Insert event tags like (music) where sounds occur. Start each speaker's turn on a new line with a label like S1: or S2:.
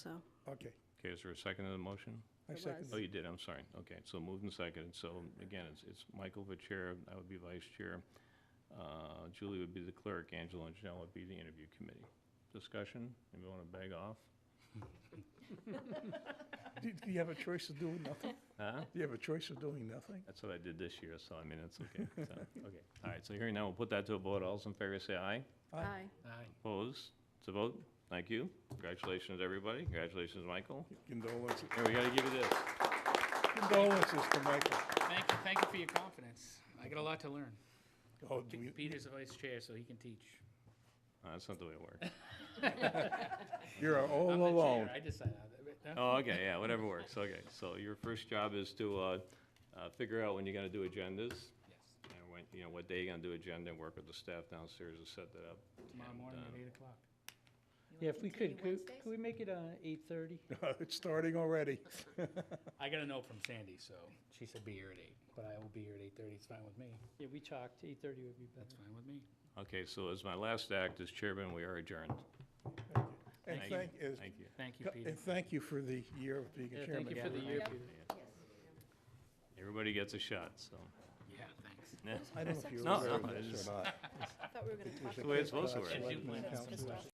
S1: So,
S2: Okay,
S3: Okay, is there a second to the motion?
S2: I
S1: It
S2: second.
S1: was.
S3: Oh, you did, I'm sorry. Okay, so moved and seconded. So again, it's, it's Michael the chair, I would be vice chair. Uh, Julie would be the clerk, Angela and Janelle would be the interview committee. Discussion, Anybody want to beg off?
S2: it. (laughs) Do- Do you have a choice of doing nothing?
S3: Huh?
S2: Do you have a choice of doing nothing?
S3: That's what I did this year, so I mean, that's okay. (laughs) So, Okay, all right, so hearing now, we'll put that to a vote. All those in favor say aye.
S1: aye.
S3: Opposed? It's a vote. Thank you. Congratulations, everybody. Congratulations, Michael.
S2: Condolences,
S3: Here, we gotta give you this. Uh,
S2: condolences to Michael.
S4: Thank you, thank you for your confidence. I got a lot to learn.
S2: Oh, do
S4: Pe-
S2: we-
S4: Peter's the vice chair, so he can teach.
S3: Uh, That's not the way it works.
S2: You're all
S4: I'm the chair,
S2: alone. (laughs)
S4: I decided.
S3: Oh, okay, yeah, whatever works, okay. So your first job is to uh, uh, figure out when you're gonna do agendas,
S4: Yes,
S3: and when, you know, what day you're gonna do agenda, and work with the staff downstairs to set that up.
S4: tomorrow
S3: And,
S4: morning
S3: uh,
S4: at eight o'clock.
S5: Yeah, if we could, could, could we make it, uh, eight-thirty?
S2: It's starting already.
S4: I got a note from Sandy, so she said be here at eight, but I will be here at eight thirty, it's fine with me,
S5: Yeah, we talked, eight-thirty would be
S4: that's
S5: better.
S4: fine with me.
S3: Okay, so as my last act as chairman, we are adjourned.
S2: And
S3: Thank you.
S2: thank, is-
S3: Thank you.
S4: Thank you, Peter.
S2: and thank you for the year of being
S5: Yeah,
S2: a
S5: thank you
S2: chairman.
S5: for the
S4: Yeah.
S5: year, Peter.
S3: Everybody gets a shot, so.
S4: Yeah, thanks.
S2: I don't know if you
S3: No,
S2: were aware
S3: no,
S2: of
S3: I
S2: this
S3: just-
S2: or not.
S1: I thought we were going to talk
S2: It was a
S3: the way it's
S2: Cape Cod
S3: supposed to work.
S2: Selectmen's Council.